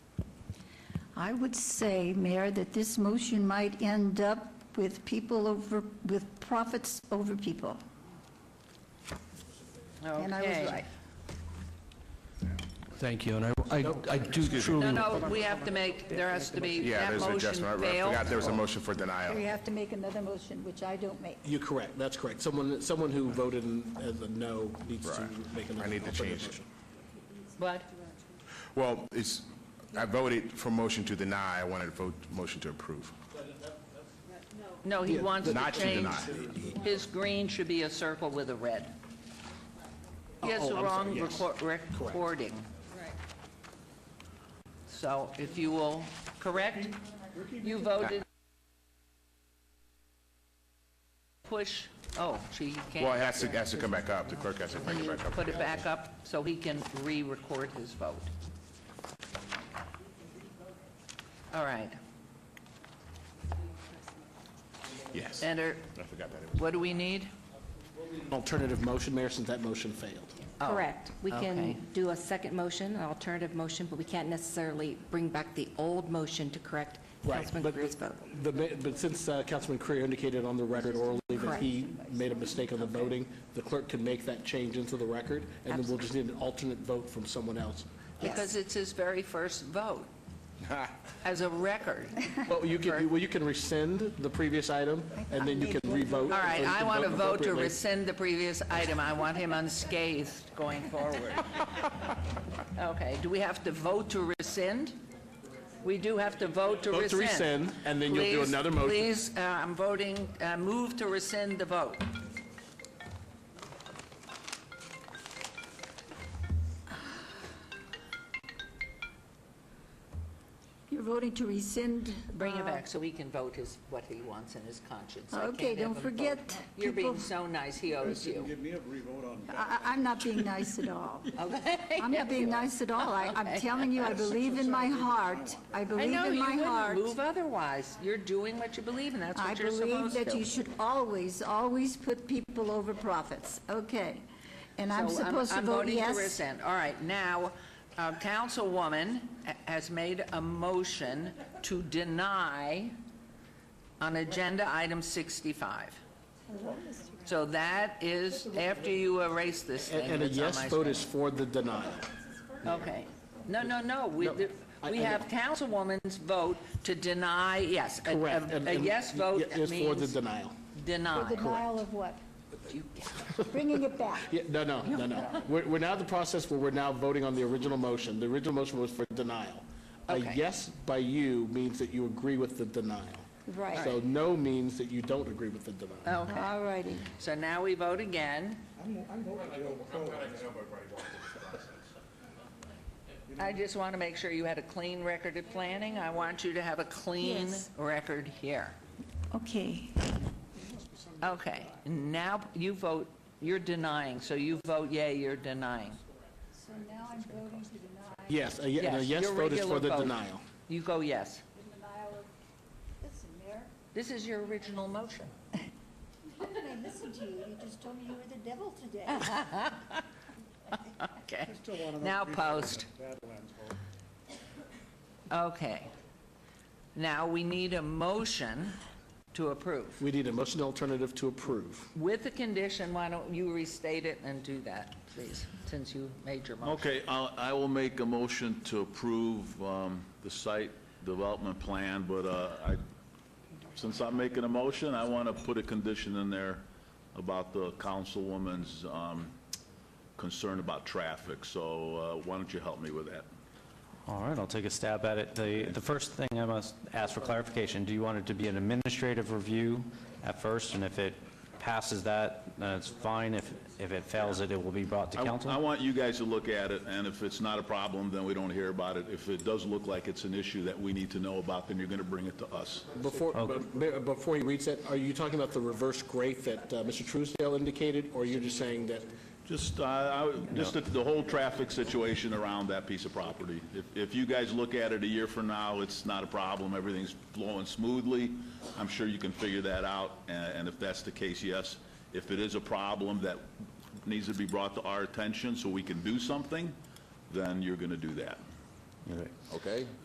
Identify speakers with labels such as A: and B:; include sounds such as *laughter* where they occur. A: I would say, Mayor, that this motion might end up with people over, with profits over people. And I was right.
B: Thank you, and I- I I do truly...
C: No, no, we have to make, there has to be, that
D: Yeah, there's an
C: motion
D: adjustment. I- I forgot
C: failed.
D: there was a motion for denial.
A: We have to make another motion, which I don't make.
E: You're correct, that's correct. Someone, someone who voted in- as a no needs to
D: Right.
E: make another
D: I need to change
E: alternative
D: it.
E: motion.
C: What?
D: Well, it's, I voted for motion to deny, I wanted to vote motion to approve.
C: No, he wants to
D: Not to
C: change.
D: deny.
C: His green should be a circle with a red. He has the
E: Oh, I'm sorry,
C: wrong
E: yes.
C: record- recording. So if you will, correct? You voted. Push, oh, she can't.
D: Well, it has to, it has to come back up, the clerk has to bring it back up.
C: Put it back up so he can re-record his vote. All right.
D: Yes. I
C: Enter,
D: forgot that. it was-
C: what do we need?
E: An alternative motion, Mayor, since that motion failed.
F: Correct. We
C: okay.
F: can do a second motion, an alternative motion, but we can't necessarily bring back the old motion to correct
E: Right,
F: Councilman
E: but-
F: Greer's vote.
E: The ma- But since uh, Councilman Creer indicated on the record orally that he made a mistake on the voting, the clerk can make that change into the record, and then we'll just need an alternate vote from someone else.
C: Because it's his very first vote as a
E: *laughs*
C: record.
E: Well, you can, well, you can rescind the previous item, and then you can revote.
C: All right, I want to vote to
E: appropriately.
C: rescind the previous item. I want him unscathed going
E: *laughs*
C: forward. Okay, do we have to vote to rescind? We do have to vote to
E: Vote
C: rescind.
E: to rescind, and then you'll do
C: Please-
E: another motion.
C: Please, uh, I'm voting, uh, move to rescind the vote.
A: You're voting to rescind.
C: Bring it
A: uh,
C: back so he can vote his, what he wants in his conscience. I can't
A: Okay, don't
C: have him vote.
A: forget,
C: You're being
A: people-
C: so nice, he owes you.
A: I, I- I'm not being nice at *laughs* all. I'm not being nice at all. I, I'm telling you, I believe in my heart. I
C: I
A: believe
C: know,
A: in
C: you
A: my
C: wouldn't
A: heart.
C: move otherwise. You're doing what you believe, and that's
A: I
C: what you're
A: believe
C: supposed to.
A: that you should always, always put people over profits. Okay. And I'm
C: So
A: supposed to vote
C: I'm voting to
A: yes?
C: rescind. All right, now, uh, Councilwoman ha- has made a motion to deny on Agenda Item 65. So that is, after you erase this
E: And
C: thing.
E: and a
C: that's on
E: yes
C: my
E: vote
C: screen.
E: is for the denial.
C: Okay. No, no, no, we,
E: No,
C: did-
E: I-
C: we
E: I know.
C: have Councilwoman's vote to deny, yes. A- a-
E: Correct. and-
C: A
E: and
C: yes
E: y-
C: vote
E: y- Is for the
C: means
E: denial.
A: For
C: deny.
A: Denial of what? Bringing it back.
E: Yeah, no, no, no, no. We're, we're now at the process where we're now voting on the original motion. The original motion was for denial. A
C: Okay.
E: yes by you means that you agree with the denial.
A: Right.
E: So no means that you don't agree with the denial.
C: Okay,
A: All righty.
C: so now we vote again. I just want to make sure you had a clean record of planning. I want you to have a clean
A: Yes.
C: record here.
A: Okay.
C: Okay, now you vote, you're denying, so you vote yay, you're denying.
A: So now I'm voting to deny
E: Yes, a ye- and a
C: Yes,
E: yes
C: your
E: vote is
C: regular
E: for the
C: vote.
E: denial.
C: You go yes.
A: the denial of, listen, Mayor,
C: This is your original motion.
A: how can I listen to you? You just told me you were the devil today.
C: Okay, now post. Okay. Now we need a motion to approve.
E: We need a motion alternative to approve.
C: With the condition, why don't you restate it and do that, please, since you made your motion.
G: Okay, I'll- I will make a motion to approve um, the site development plan, but uh, I, since I'm making a motion, I want to put a condition in there about the councilwoman's um, concern about traffic, so uh, why don't you help me with that?
H: All right, I'll take a stab at it. The, the first thing I must ask for clarification, do you want it to be an administrative review at first? And if it passes that, then it's fine. If, if it fails it, it will be brought to
G: I- I
H: council?
G: want you guys to look at it, and if it's not a problem, then we don't hear about it. If it does look like it's an issue that we need to know about, then you're going to bring it to us.
E: Before, be- before he reads that, are you talking about the reverse grate that uh, Mr. Truesdale indicated, or you're just saying that
G: Just, uh, I- just the- the whole traffic situation around that piece of property. If if you guys look at it a year from now, it's not a problem, everything's flowing smoothly, I'm sure you can figure that out, a- and if that's the case, yes. If it is a problem that needs to be brought to our attention so we can do something, then you're going to do that,
H: Okay.
G: okay?